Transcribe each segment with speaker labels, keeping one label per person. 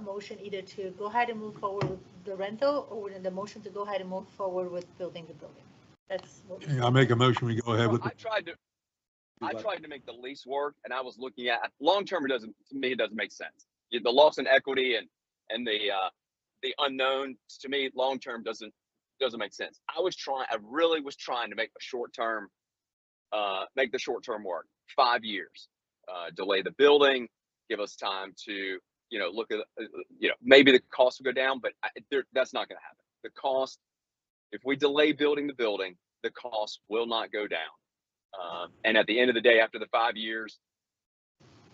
Speaker 1: motion either to go ahead and move forward with the rental or the motion to go ahead and move forward with building the building. That's what.
Speaker 2: I make a motion, we go ahead
Speaker 3: Well,
Speaker 2: with,
Speaker 3: I
Speaker 2: the-
Speaker 3: tried to, I tried to make the lease work and I was looking at, long-term, it doesn't, to me, it doesn't make sense. Yeah, The loss in equity and, and the, uh, the unknown, to me, long-term doesn't, doesn't make sense. I was trying, I really was trying to make a short-term, uh, make the short-term work, five years. Uh, delay the building, give us time to, you know, look at, uh, you know, maybe the cost will go down, but I, there, that's not gonna happen. The cost, if we delay building the building, the cost will not go down. Um, and at the end of the day, after the five years,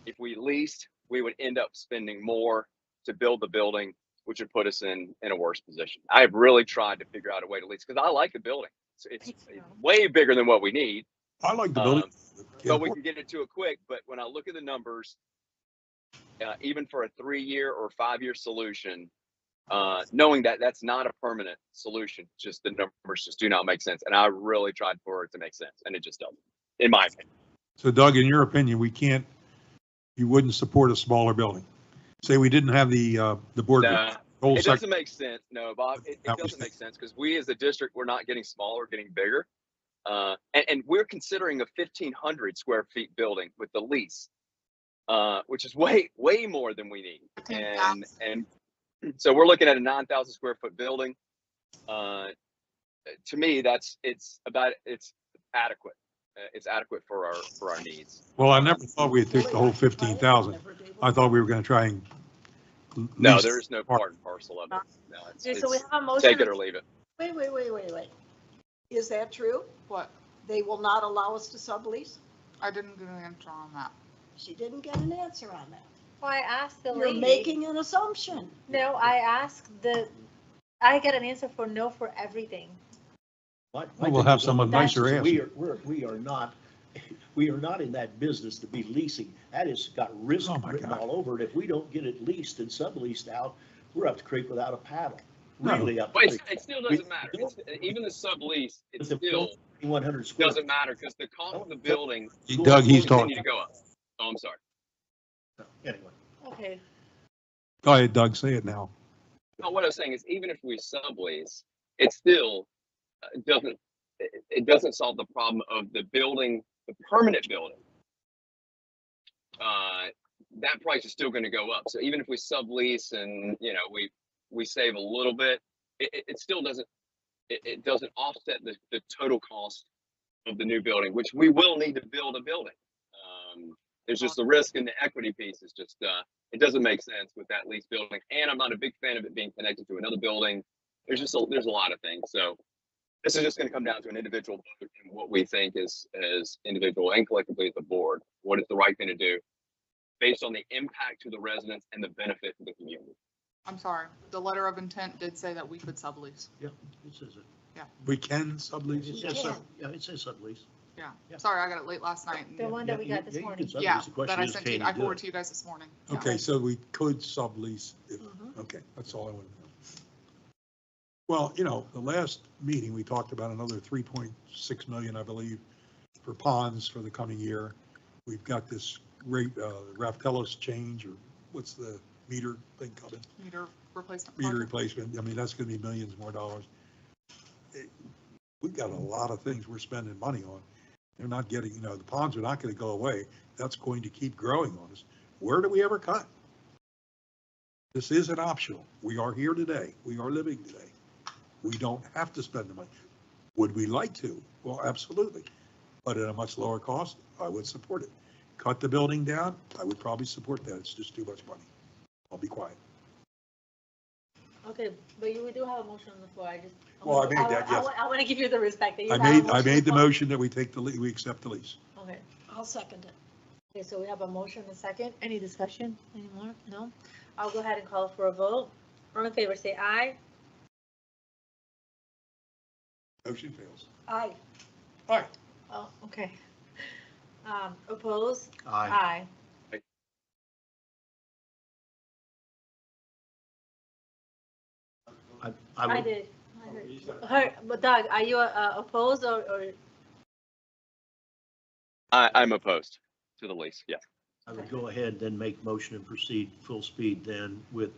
Speaker 3: if we leased, we would end up spending more to build the building, which would put us in, in a worse position. I've really tried to figure out a way to lease because I like the building. It's, it's
Speaker 1: Thank you.
Speaker 3: way bigger than what we need.
Speaker 2: I like the
Speaker 3: Um,
Speaker 2: building.
Speaker 3: but we can get into it quick. But when I look at the numbers, uh, even for a three-year or five-year solution, uh, knowing that that's not a permanent solution, just the numbers just do not make sense. And I really tried for it to make sense, and it just doesn't, in my opinion.
Speaker 2: So Doug, in your opinion, we can't, you wouldn't support a smaller building? Say we didn't have the, uh, the board,
Speaker 3: Nah,
Speaker 2: whole
Speaker 3: it
Speaker 2: sec-
Speaker 3: doesn't make sense. No, Bob, it,
Speaker 2: That was
Speaker 3: it doesn't
Speaker 2: the-
Speaker 3: make sense because we as a district, we're not getting smaller, we're getting bigger. Uh, and, and we're considering a fifteen hundred square feet building with the lease, uh, which is way, way more than we need. And, and so we're looking at a nine thousand square foot building. Uh, to me, that's, it's about, it's adequate. Uh, it's adequate for our, for our needs.
Speaker 2: well, I never thought we'd take the whole 15,000. I thought we were going to try and.
Speaker 3: No,
Speaker 2: lease-
Speaker 3: there is no part and parcel of it. No, it's,
Speaker 1: Okay, So we
Speaker 3: it's
Speaker 1: have a motion.
Speaker 3: take it or leave it.
Speaker 4: Wait, wait, wait, wait, wait.
Speaker 5: Is that true?
Speaker 4: What?
Speaker 5: They will not allow us to sublease?
Speaker 4: I didn't get an answer on that.
Speaker 5: She didn't get an answer on that.
Speaker 1: Well, I asked the
Speaker 5: You're
Speaker 1: lady,
Speaker 5: making an assumption.
Speaker 1: no, I asked the, I got an answer for no for everything.
Speaker 6: My- my
Speaker 2: Well, we'll
Speaker 6: thing
Speaker 2: have
Speaker 6: is,
Speaker 2: someone
Speaker 6: that's-
Speaker 2: nicer ask
Speaker 6: We
Speaker 2: you.
Speaker 6: are, we're, we are not, we are not in that business to be leasing. That has got risk
Speaker 2: Oh, my
Speaker 6: written
Speaker 2: God.
Speaker 6: all over it. If we don't get it leased and subleased out, we're up the creek without a paddle, really up.
Speaker 3: But it's, it still
Speaker 6: We-
Speaker 3: doesn't matter. It's, uh, even the sublease, it
Speaker 6: It's a-
Speaker 3: still
Speaker 6: One hundred square.
Speaker 3: doesn't matter because the cost of the building
Speaker 2: Doug,
Speaker 3: will
Speaker 2: he's
Speaker 3: continue to
Speaker 2: talking.
Speaker 3: go up. Oh, I'm sorry.
Speaker 6: Anyway,
Speaker 1: Okay,
Speaker 2: Go ahead, Doug, say it now.
Speaker 3: No, what I was saying is even if we sublease, it still uh, doesn't, it, it doesn't solve the problem of the building, the permanent building. Uh, that price is still gonna go up. So even if we sublease and, you know, we, we save a little bit, it, it, it still doesn't, it, it doesn't offset the, the total cost of the new building, which we will need to build a building. Um, there's just the risk and the equity piece is just, uh, it doesn't make sense with that lease building. And I'm not a big fan of it being connected to another building. There's just, a there's a lot of things. So this is just gonna come down to an individual vote and what we think is, as individual and collectively as the board, what is the right thing to do based on the impact to the residents and the benefit to the community.
Speaker 4: I'm sorry. The letter of intent did say that we could sublease.
Speaker 6: this is
Speaker 2: We can
Speaker 6: a, it
Speaker 2: sublease.
Speaker 6: says,
Speaker 5: Yeah.
Speaker 6: sub- yeah, it says sublease.
Speaker 4: Yeah.
Speaker 6: Yeah.
Speaker 4: Sorry, I got it late last night. and-
Speaker 1: the one that we got
Speaker 6: Yeah, yeah,
Speaker 1: this
Speaker 6: you can
Speaker 1: morning.
Speaker 6: sublease.
Speaker 4: Yeah,
Speaker 6: The
Speaker 4: that
Speaker 6: question
Speaker 4: I
Speaker 6: is,
Speaker 4: sent
Speaker 6: can
Speaker 4: to,
Speaker 6: you
Speaker 4: I
Speaker 6: do
Speaker 4: forwarded
Speaker 6: it?
Speaker 4: to you guys this morning. Yeah.
Speaker 2: Okay, so we could sublease if
Speaker 5: Mhm.
Speaker 2: Okay, that's all I wanted to know. Well, you know, the last meeting, we talked about another 3.6 million, I believe, for ponds for the coming year. We've got this rate, uh, Raftellus change, or what's the meter thing coming?
Speaker 4: Meter replacement.
Speaker 2: Meter
Speaker 4: project.
Speaker 2: replacement, I mean, that's gonna be millions more dollars. It- We've got a lot of things we're spending money on. They're not getting, you know, the ponds are not gonna go away. That's going to keep growing on us. Where do we ever cut? This isn't optional. We are here today. We are living today. We don't have to spend the money. Would we like to? Well, absolutely. But at a much lower cost, I would support it. Cut the building down, I would probably support that. It's just too much money. I'll be quiet.
Speaker 1: Okay, but you, we do have a motion on the floor, I just.
Speaker 2: Well, I made
Speaker 1: wa-
Speaker 2: that,
Speaker 1: I
Speaker 2: yes.
Speaker 1: wa- I want to give you the respect that you
Speaker 2: I
Speaker 1: have.
Speaker 2: made,
Speaker 1: a
Speaker 2: I made the
Speaker 1: on
Speaker 2: motion that we take the, lea- we accept the lease.
Speaker 1: floor. Okay,
Speaker 5: I'll second it.
Speaker 1: okay, so we have a motion and a second. Any discussion anymore? No? I'll go ahead and call for a vote. All in favor, say aye.
Speaker 2: Motion fails.
Speaker 5: Aye.
Speaker 1: Oh, okay. Um, opposed?
Speaker 6: Aye.
Speaker 1: Aye.
Speaker 3: Aye.
Speaker 6: I,
Speaker 1: I
Speaker 6: I would,
Speaker 1: did. I did. Her, but Doug, are you uh, opposed or, or,
Speaker 3: I, I'm opposed to the lease, yeah.
Speaker 6: I would go ahead then make motion and proceed full speed then with